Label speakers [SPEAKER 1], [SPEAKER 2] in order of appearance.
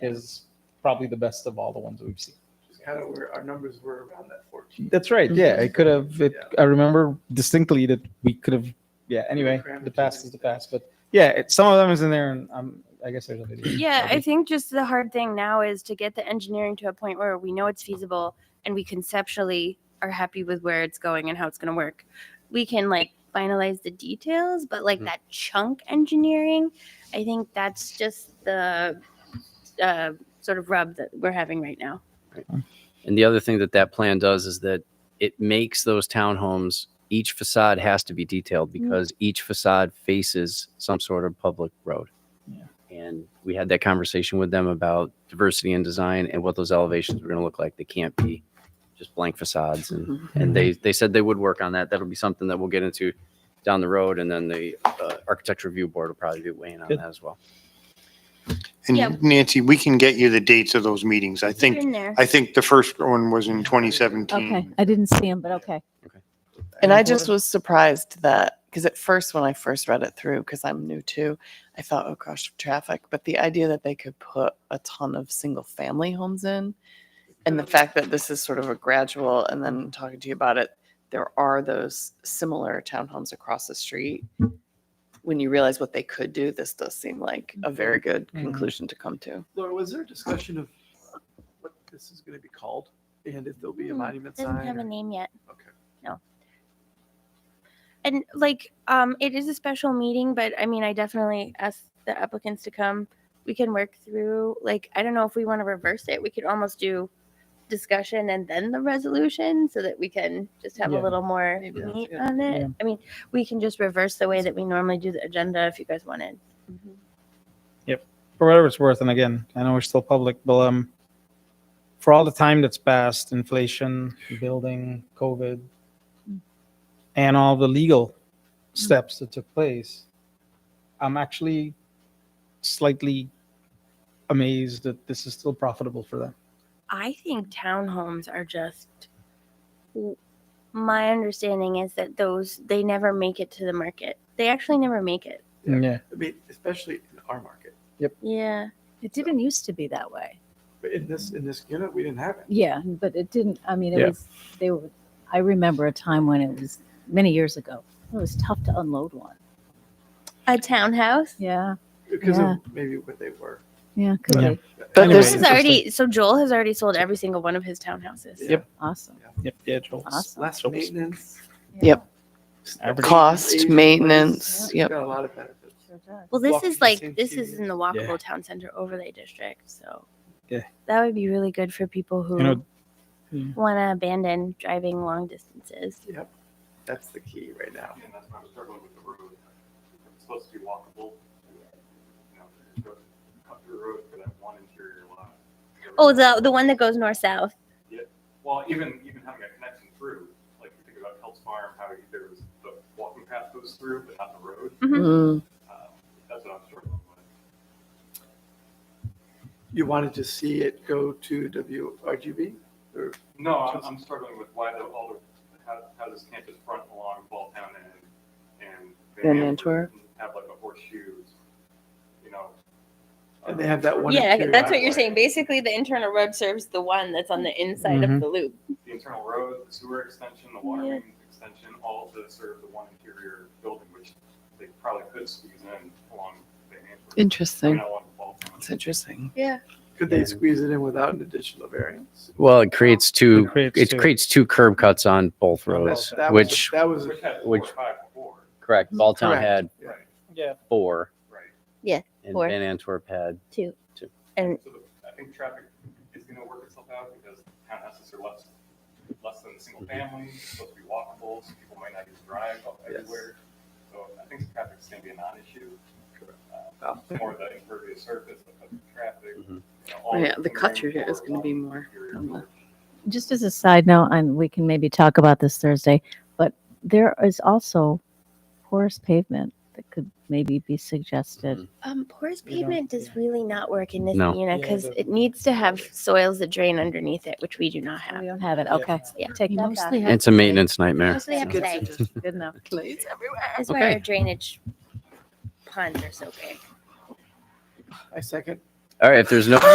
[SPEAKER 1] is probably the best of all the ones we've seen.
[SPEAKER 2] Which is kind of where our numbers were around that 14.
[SPEAKER 1] That's right. Yeah, it could have. It,
[SPEAKER 2] Yeah.
[SPEAKER 1] I remember distinctly that we could have. Yeah. Anyway,
[SPEAKER 2] Crammed
[SPEAKER 1] the
[SPEAKER 2] it
[SPEAKER 1] past
[SPEAKER 2] in.
[SPEAKER 1] is the past, but yeah, it, some of them is in there, and I'm. I guess there's a video.
[SPEAKER 3] Yeah, I think just the hard thing now is to get the engineering to a point where we know it's feasible and we conceptually are happy with where it's going and how it's going to work. We can like finalize the details, but like
[SPEAKER 4] Mhm.
[SPEAKER 3] that chunk engineering, I think that's just the uh, sort of rub that we're having right now.
[SPEAKER 4] And the other thing that that plan does is that it makes those townhomes, each facade has to be detailed
[SPEAKER 1] Mm-hmm.
[SPEAKER 4] because each facade faces some sort of public road.
[SPEAKER 1] Yeah.
[SPEAKER 4] And we had that conversation with them about diversity in design and what those elevations were going to look like. They can't be just blank facades.
[SPEAKER 1] Mm-hmm.
[SPEAKER 4] And, and they, they said they would work on that. That'll be something that we'll get into down the road. And then the uh, architecture review board will probably be weighing on
[SPEAKER 1] Good.
[SPEAKER 4] that as well.
[SPEAKER 3] Yeah.
[SPEAKER 5] And Nancy, we can get you the dates of those meetings. I think,
[SPEAKER 3] in there.
[SPEAKER 5] I think the first one was in
[SPEAKER 6] Okay,
[SPEAKER 4] Mm.
[SPEAKER 5] 2017.
[SPEAKER 6] I didn't see him, but okay.
[SPEAKER 7] And I just was surprised that, because at first, when I first read it through, because I'm new too, I thought, oh gosh, traffic. But the idea that they could put a ton of single family homes in and the fact that this is sort of a gradual, and then talking to you about it, there are those similar townhomes across the street. When you realize what they could do, this does seem like a very good
[SPEAKER 1] Mhm.
[SPEAKER 7] conclusion to come to.
[SPEAKER 2] Laura, was there a discussion of what this is going to be called and if there'll be a
[SPEAKER 3] Hmm,
[SPEAKER 2] monument
[SPEAKER 3] Doesn't
[SPEAKER 2] sign?
[SPEAKER 3] have a
[SPEAKER 2] or-
[SPEAKER 3] name yet.
[SPEAKER 2] Okay.
[SPEAKER 3] No. And like, um, it is a special meeting, but I mean, I definitely ask the applicants to come. We can work through, like, I don't know if we want to reverse it. We could almost do discussion and then the resolution so that we can just have
[SPEAKER 1] Yeah.
[SPEAKER 3] a little more
[SPEAKER 7] Maybe that's
[SPEAKER 3] meat
[SPEAKER 7] good.
[SPEAKER 3] on it.
[SPEAKER 1] Yeah.
[SPEAKER 3] I mean, we can just reverse the way that we normally do the agenda if you guys wanted.
[SPEAKER 1] for whatever it's worth, and again, I know we're still public, but um, for all the time that's passed, inflation, building, COVID, and all the legal steps that took place, I'm actually slightly amazed that this is still profitable for them.
[SPEAKER 3] I think townhomes are just. My understanding is that those they never make it to the market. They actually never make it.
[SPEAKER 2] Yeah.
[SPEAKER 1] Yeah.
[SPEAKER 2] I mean, especially in our market.
[SPEAKER 3] Yeah.
[SPEAKER 6] It didn't used to be that way.
[SPEAKER 2] But in this, in this unit, we didn't have it.
[SPEAKER 6] Yeah, but it didn't, I mean,
[SPEAKER 1] Yeah.
[SPEAKER 6] it was, they were, I remember a time when it was many years ago. It was tough to unload one.
[SPEAKER 3] A townhouse.
[SPEAKER 6] Yeah,
[SPEAKER 2] Because of maybe what they were.
[SPEAKER 6] yeah, could
[SPEAKER 1] Yeah.
[SPEAKER 6] be.
[SPEAKER 7] But
[SPEAKER 1] Anyway.
[SPEAKER 3] This
[SPEAKER 7] there's,
[SPEAKER 3] is already so Joel has already sold every single one of his townhouses.
[SPEAKER 2] Yeah.
[SPEAKER 6] Awesome.
[SPEAKER 1] Yep. Yeah. Joel.
[SPEAKER 6] Awesome.
[SPEAKER 2] Less
[SPEAKER 1] So-
[SPEAKER 2] maintenance.
[SPEAKER 7] Yep.
[SPEAKER 1] Average.
[SPEAKER 7] Cost,
[SPEAKER 2] aging place.
[SPEAKER 7] maintenance,
[SPEAKER 2] It's
[SPEAKER 7] yep.
[SPEAKER 2] Got a lot of benefits.
[SPEAKER 3] Well, this
[SPEAKER 2] Walking
[SPEAKER 3] is like
[SPEAKER 2] distance
[SPEAKER 3] this
[SPEAKER 2] to-
[SPEAKER 3] is in the walkable town center overlay district, so
[SPEAKER 1] Yeah.
[SPEAKER 3] that would be really good for people who
[SPEAKER 1] You know- Yeah.
[SPEAKER 3] want to abandon driving long distances.
[SPEAKER 2] Yep. That's the key right now.
[SPEAKER 8] And that's why I'm struggling with the road. It's supposed to be walkable. You know, you go Cut through the road for that one interior lot.
[SPEAKER 3] Oh, the the one that goes north south.
[SPEAKER 8] Well, even, even having a connection through, like you think about Helps Farm, how you- there was the walking path goes through, but not the road.
[SPEAKER 7] Mm,
[SPEAKER 8] Um, That's what I'm struggling with.
[SPEAKER 2] You wanted to see it go to WRGB? Or
[SPEAKER 8] No, I'm, I'm struggling with why the, all the, how, how does campus front along Balltown and, and.
[SPEAKER 7] Van
[SPEAKER 8] Antwerp
[SPEAKER 7] Antwerp.
[SPEAKER 8] Have like a horseshoe, you know.
[SPEAKER 2] And they have that one
[SPEAKER 3] Yeah,
[SPEAKER 2] interior
[SPEAKER 3] that's what you're
[SPEAKER 2] driveway.
[SPEAKER 3] saying. Basically, the internal road serves the one that's on the inside
[SPEAKER 1] Mhm.
[SPEAKER 4] Mm-hmm.
[SPEAKER 3] of the loop.
[SPEAKER 8] the internal road, the sewer extension, the water main extension, all to serve the one interior building, which they probably could squeeze in along the Antwerp.
[SPEAKER 7] Interesting. It's interesting.
[SPEAKER 3] Yeah.
[SPEAKER 2] Could they squeeze it in without an additional variance?
[SPEAKER 4] Well, it creates two,
[SPEAKER 1] It creates
[SPEAKER 4] it
[SPEAKER 1] two.
[SPEAKER 4] creates two curb cuts on both roads,
[SPEAKER 2] That- that was-
[SPEAKER 4] which,
[SPEAKER 2] That was,
[SPEAKER 8] Which had four or
[SPEAKER 4] Which-
[SPEAKER 8] five before,
[SPEAKER 4] correct, Balltown
[SPEAKER 2] Correct.
[SPEAKER 4] had
[SPEAKER 8] right,
[SPEAKER 1] Yeah.
[SPEAKER 4] four.
[SPEAKER 8] right.
[SPEAKER 4] And
[SPEAKER 3] Four.
[SPEAKER 4] Van Antwerp had,
[SPEAKER 3] Two.
[SPEAKER 4] Two.
[SPEAKER 3] And
[SPEAKER 8] So the- I think traffic is gonna work itself out because townhouses are less, less than single family, it's supposed to be walkable, so people might not even drive up
[SPEAKER 2] Yes.
[SPEAKER 8] everywhere. So I think traffic's gonna be a non-issue. Uh,
[SPEAKER 2] Well-
[SPEAKER 8] More of the impervious surface, the traffic.
[SPEAKER 4] Mhm.
[SPEAKER 8] you know, all
[SPEAKER 7] Mm-hmm. Oh, Yeah,
[SPEAKER 8] the
[SPEAKER 7] the cut
[SPEAKER 8] things
[SPEAKER 7] through here is
[SPEAKER 8] for
[SPEAKER 7] gonna be
[SPEAKER 8] walking
[SPEAKER 7] more
[SPEAKER 8] interior
[SPEAKER 7] on the-
[SPEAKER 8] buildings.
[SPEAKER 6] Just as a side note, and we can maybe talk about this Thursday, but there is also porous pavement that could maybe be suggested.
[SPEAKER 4] Mm-hmm.
[SPEAKER 3] um, porous
[SPEAKER 1] We don't-
[SPEAKER 3] pavement does really not work in this
[SPEAKER 4] No.
[SPEAKER 3] unit
[SPEAKER 1] Yeah,
[SPEAKER 3] because
[SPEAKER 1] the-
[SPEAKER 3] it needs to have soils that drain underneath it, which we do not have.
[SPEAKER 6] We don't have it,
[SPEAKER 1] Yeah.
[SPEAKER 6] okay.
[SPEAKER 3] Yeah.
[SPEAKER 6] Take
[SPEAKER 3] You
[SPEAKER 6] that
[SPEAKER 3] mostly
[SPEAKER 6] back.
[SPEAKER 4] it's a maintenance nightmare.
[SPEAKER 3] Mostly have
[SPEAKER 7] Good
[SPEAKER 3] clay.
[SPEAKER 7] suggestion.
[SPEAKER 6] Good enough.
[SPEAKER 7] Clays everywhere.
[SPEAKER 3] That's why
[SPEAKER 4] Okay.
[SPEAKER 3] our drainage ponds are so big.
[SPEAKER 2] I second.
[SPEAKER 4] All right, if there's no